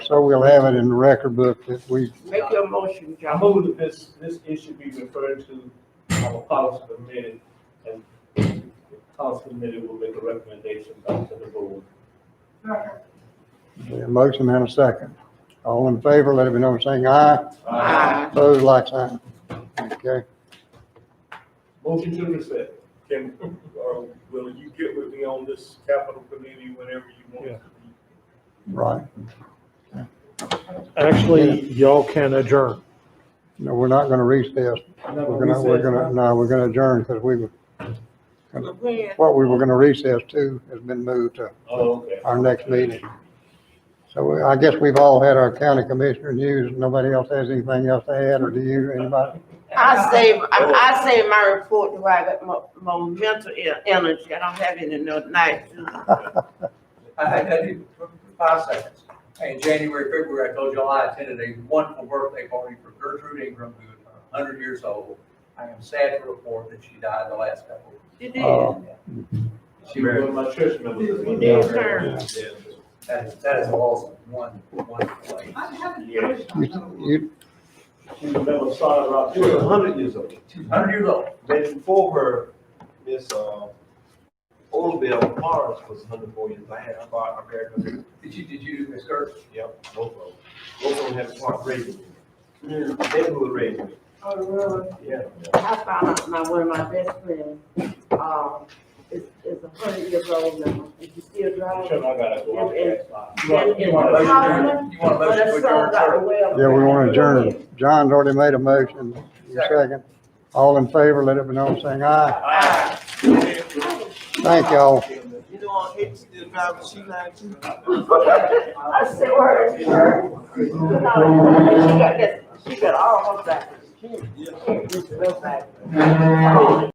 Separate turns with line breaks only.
so we'll have it in the record book that we,
Make your motion,
I
John.
move that this, this issue be referred to our policy committee, and the policy committee will make a recommendation back to the board.
a motion and a second. All in favor, let it be known, saying aye.
Aye.
Opposed, like sign. Okay.
Motion to accept.
Can, or will you get with me on this capital committee whenever you want?
Yeah.
Right.
Actually, y'all can adjourn.
No, we're not gonna recess. We're gonna, we're gonna, no, we're gonna adjourn because we, were-
When?
what we were gonna recess to has been moved to
Oh, okay.
our next meeting. So we- I guess we've all had our county commissioner news. Nobody else has anything else to add, or do you, anybody?
I save, I, I save my report to I got mo- more mental e- energy. I don't have any no night.
I, I did for five seconds. In January, February, I told you all I attended a wonderful birthday party for Gertrude Ingram, who is a hundred years old. I am sad to report that she died the last couple.
You did.
Uh,
She was one of my church members.
Yes, sir.
That is, that is awesome, one, one place.
Yeah.
You, you,
She was a member of Solid Rock. She was a hundred years old.
Hundred years old.
Then before her, Miss, uh, Olabelle Morris was hundred four years, I had, I bought, I married her,
Did you, did you, Miss Gertrude?
yep, both of them. Both of them had a part raising me. Neighborhood raising me,
Oh, really?
yeah.
I found out my, one of my best friends, um, is, is a hundred years old now. Is she still driving?
Sure, I gotta go out there.
You want
Yeah,
you want a motion to adjourn? You want a
But
motion to
that song
adjourn,
got
sir?
away.
yeah, we want to adjourn. John's already made a motion. You Second. All in favor, let it be known, saying aye.
Ah.
Thank y'all.
You know, I hate to do that, but she like to.
I said, where is her? She got this, she got all her back. She, she, real back.